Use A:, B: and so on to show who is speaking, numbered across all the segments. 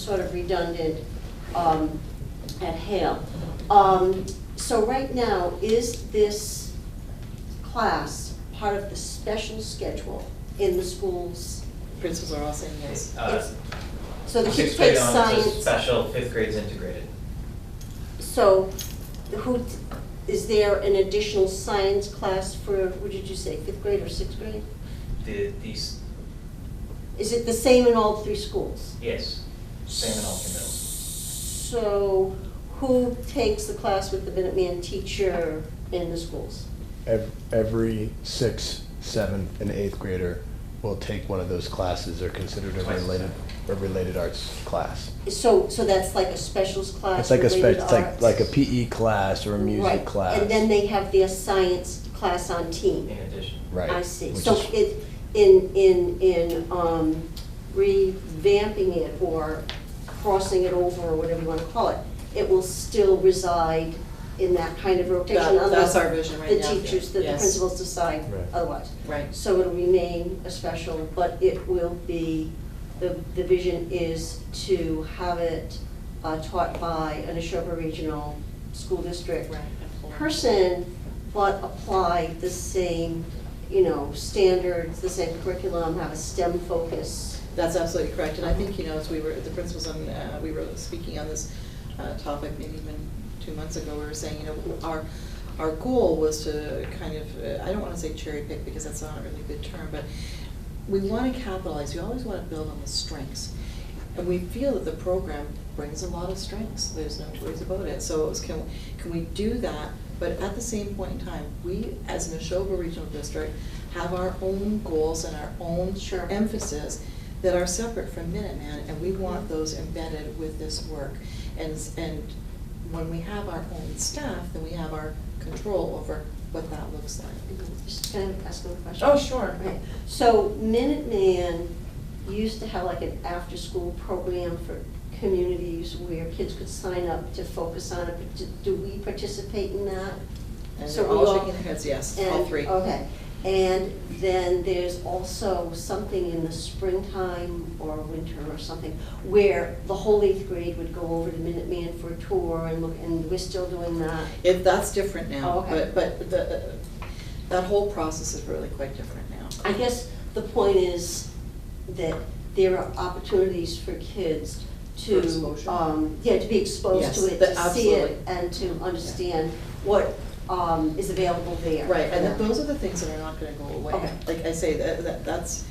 A: sort of redundant um, at Hale. Um, So right now, is this class part of the special schedule in the schools?
B: Principals are all saying yes.
C: Uh,
A: So the kids
C: Sixth grade
A: take
C: on is a
A: science,
C: special, fifth grade's integrated.
A: so who, is there an additional science class for, what did you say, fifth grade or sixth grade?
C: The, these,
A: Is it the same in all three schools?
C: yes, same in all three middles.
A: So who takes the class with the Minuteman teacher in the schools?
D: Ev- Every sixth, seventh, and eighth grader will take one of those classes. They're considered a
C: Twice as
D: related, a related arts class.
A: So, so that's like a specials class?
D: It's like a
A: related
D: spe- it's like,
A: arts?
D: like a PE class or a music
A: Right.
D: class.
A: And then they have their science class on
C: in
A: team?
C: addition.
D: Right.
A: I see.
D: which
A: So
D: is-
A: it, in, in, in um, revamping it or crossing it over or whatever you want to call it, it will still reside in that kind of rotation
B: That-
A: unless
B: That's our vision right
A: the
B: now.
A: teachers, the the
B: Yes.
A: principals decide
D: Right.
A: otherwise.
B: Right.
A: So it'll remain a special, but it will be, the, the vision is to have it uh, taught by an Ashoka Regional School District
B: Right.
A: person, but apply the same, you know, standards, the same curriculum, have a STEM focus.
B: That's absolutely correct, and I think, you know, as we were, the principals on, uh, we were speaking on this uh, topic maybe even two months ago, we were saying, you know, our, our goal was to kind of, uh, I don't wanna say cherry pick because that's not a really good term, but we wanna capitalize, we always wanna build on the strengths. And we feel that the program brings a lot of strengths, there's no two ways about it. So it was, can, can we do that? But at the same point in time, we, as an Neshoba Regional District, have our own goals and our own
A: Sure.
B: emphasis that are separate from Minuteman, and we want those embedded with this work. And, s- and when we have our own staff, then we have our control over what that looks like.
A: Just kind of ask them a question.
B: Oh, sure.
A: Right. So Minuteman used to have like an after-school program for communities where kids could sign up to focus on it. but do- Do we participate in that?
B: And
A: So
B: they're
A: we
B: all
A: all-
B: shaking their heads, yes, all
A: And-
B: three.
A: Okay, and then there's also something in the springtime or winter or something where the whole eighth grade would go over to Minuteman for a tour and look, and we're still doing that.
B: If, that's different
A: Oh,
B: now,
A: okay.
B: but, but the, that whole process is really quite different now.
A: I guess the point is that there are opportunities for kids
B: For
A: to,
B: exposure.
A: um, yeah, to be exposed to
B: Yes,
A: it,
B: that-
A: to see it,
B: absolutely.
A: and to understand what, um, is available there.
B: Right, and that those are the things that are not gonna go away.
A: Okay.
B: Like I say, that, that, that's,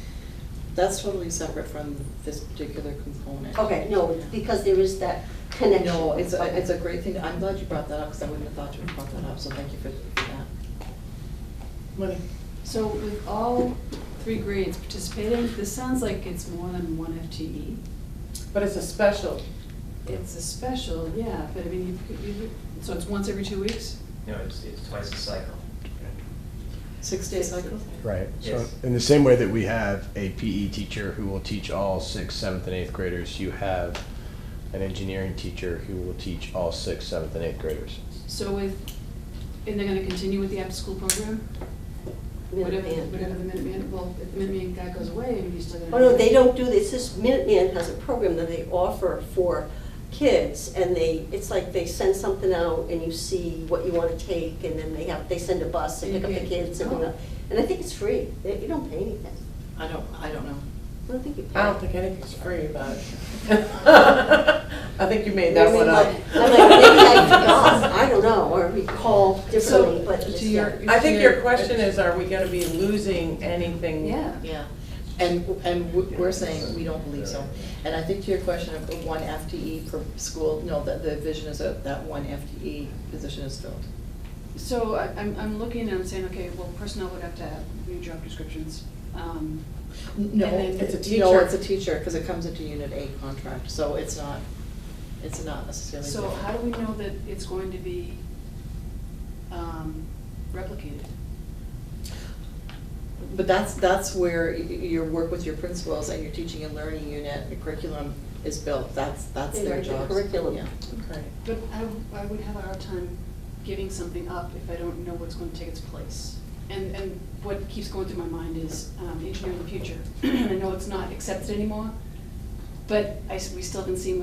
B: that's totally separate from this particular component.
A: Okay, no, because there is that connection.
B: No, it's a, it's a great thing, I'm glad you brought that up, because I wouldn't have thought you would have brought that up, so thank you for for that.
E: So with all three grades participating, this sounds like it's more than one FTE.
F: But it's a special.
E: It's a special, yeah, but I mean, you, could- you, so it's once every two weeks?
C: No, it's, it's twice the cycle.
B: Six-day cycle?
D: Right. So
C: Yes.
D: in the same way that we have a PE teacher who will teach all sixth, seventh, and eighth graders, you have an engineering teacher who will teach all sixth, seventh, and eighth graders.
E: So with, and they're gonna continue with the after-school program? Whatever,
A: Minuteman.
E: whatever the Minuteman, well, if the Minuteman guy goes away, you're still gonna.
A: Oh, no, they don't do this, this Minuteman has a program that they offer for kids, and they, it's like they send something out, and you see what you wanna take, and then they have, they send a bus and pick up the kids, and, uh, and I think it's free, They- you don't pay anything,
B: I don't, I don't know.
A: I don't think you pay.
F: I don't think anything's free, but I think you made that one up.
A: I'm like, maybe I forgot, I don't know, or recall differently, but
E: So,
A: it's,
E: to your-
A: yeah.
F: I think your question is, are we gonna be losing anything?
E: Yeah.
B: Yeah, and, and w- we're saying we don't believe so. And I think to your question of the one FTE per school, no, that the vision is that that one FTE position is filled.
E: So I, I'm, I'm looking and I'm saying, okay, well, personnel would have to have new job descriptions. Um,
B: No,
E: And then-
B: it's a, no,
F: teacher.
B: it's a teacher, because it comes into Unit A contract, so it's not, it's not necessarily.
E: So
B: different.
E: how do we know that it's going to be, um, replicated?
B: But that's, that's where y- y- your work with your principals and your teaching and learning unit, your curriculum is built, that's, that's
A: They
B: their
A: write the
B: job.
A: curriculum.
F: Okay.
E: But I, I would have a hard time giving something up if I don't know what's going to take its place. And, and what keeps going through my mind is um, engineering the future. I know it's not accepted anymore, but I, s- we still haven't seen